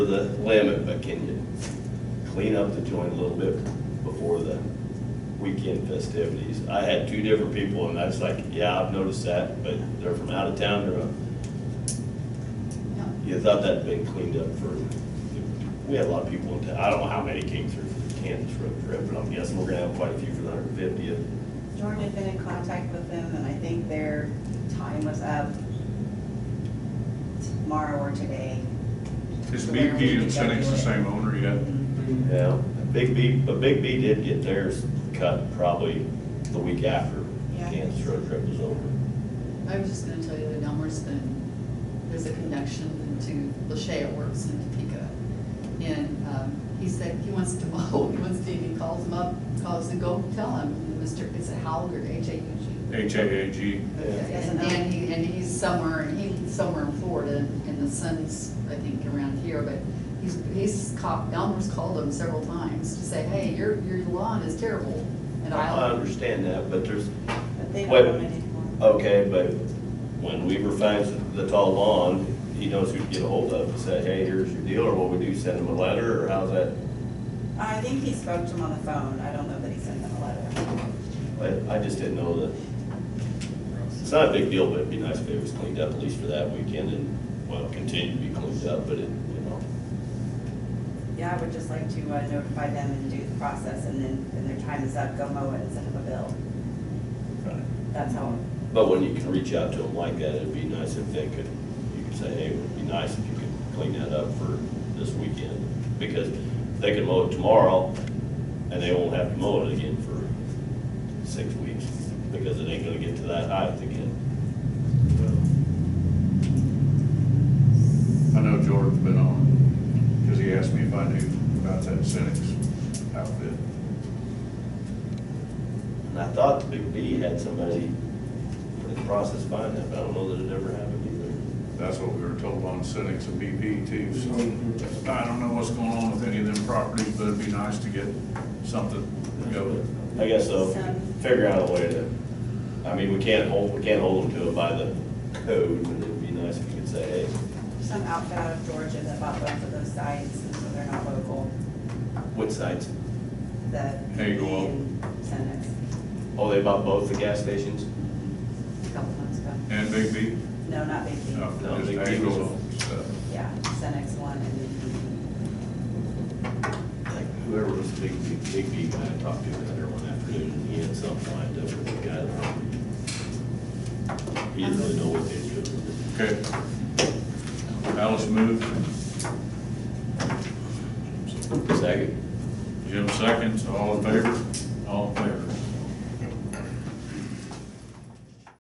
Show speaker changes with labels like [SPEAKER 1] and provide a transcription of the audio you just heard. [SPEAKER 1] the limit, but can you clean up the joint a little bit before the weekend festivities? I had two different people, and I was like, yeah, I've noticed that, but they're from out of town, they're, uh, you thought that'd been cleaned up for, we had a lot of people in town, I don't know how many came through for the Kansas road trip, but I'm guessing we're gonna have quite a few for the hundred fiftieth.
[SPEAKER 2] Jordan had been in contact with them, and I think their time was up tomorrow or today.
[SPEAKER 3] Is BP and Senex the same owner yet?
[SPEAKER 1] Yeah, Big B, but Big B did get theirs cut probably the week after
[SPEAKER 4] Yeah.
[SPEAKER 1] Kansas road trip was over.
[SPEAKER 4] I was just gonna tell you that Elmer's been, there's a connection to Lachey Works in Topeka. And um, he said he wants to mow, he wants to, he calls him up, calls and go tell him, Mr., it's a Halger, H A U G.
[SPEAKER 3] HAAG?
[SPEAKER 4] Okay, And and he, and he's somewhere, he's somewhere in Florida, and the sun's, I think, around here, but he's, he's caught, Elmer's called him several times to say, hey, your, your lawn is terrible. And
[SPEAKER 1] I
[SPEAKER 4] I,
[SPEAKER 1] understand that, but there's,
[SPEAKER 2] But they
[SPEAKER 1] Wait.
[SPEAKER 2] don't want it anymore.
[SPEAKER 1] okay, but when Weaver finds the tall lawn, he knows who to get a hold of and say, hey, here's your deal, or what we do, send him a letter, or how's that?
[SPEAKER 2] I think he spoke to him on the phone, I don't know that he sent them a letter.
[SPEAKER 1] I, I just didn't know that. It's not a big deal, but it'd be nice if it was cleaned up at least for that weekend and, well, continue to be cleaned up, but it, you know.
[SPEAKER 2] Yeah, I would just like to uh, notify them and do the process, and then when their time is up, go mow it and send them a bill.
[SPEAKER 1] Right.
[SPEAKER 2] That's how,
[SPEAKER 1] But when you can reach out to them like that, it'd be nice if they could, you could say, hey, it would be nice if you could clean that up for this weekend. Because they can mow it tomorrow, and they won't have to mow it again for six weeks, because it ain't gonna get to that height again.
[SPEAKER 3] I know George's been on, because he asked me if I knew about that Senex outfit.
[SPEAKER 1] And I thought the Big B had somebody in the process buying that, but I don't know that it ever happened
[SPEAKER 3] That's what we were told on Senex and BP too, so I don't know what's going on with any of them properties, but it'd be nice to get something
[SPEAKER 1] either.
[SPEAKER 3] going.
[SPEAKER 1] I guess so, figure out a way to, I mean, we can't hold, we can't hold them to it by the code, but it'd be nice if you could say, hey,
[SPEAKER 2] some outfit out of Georgia that bought both of those sites, and so they're not local,
[SPEAKER 1] Which sites?
[SPEAKER 2] the.
[SPEAKER 3] There you go.
[SPEAKER 2] Senate.
[SPEAKER 1] Oh, they bought both the gas stations?
[SPEAKER 2] a couple months ago.
[SPEAKER 3] And BP?
[SPEAKER 2] No, not Big B.
[SPEAKER 3] No,
[SPEAKER 1] No,
[SPEAKER 3] just
[SPEAKER 1] Big B
[SPEAKER 3] Anglo stuff.
[SPEAKER 2] Yeah, Senex one and then
[SPEAKER 1] Like whoever was the big, big, big B guy I talked to the other one afternoon, and he had something lined up with the guy. that- He didn't really know what they did.
[SPEAKER 3] Okay. Alice moved,
[SPEAKER 1] Second.
[SPEAKER 3] Jim seconds, all in favor?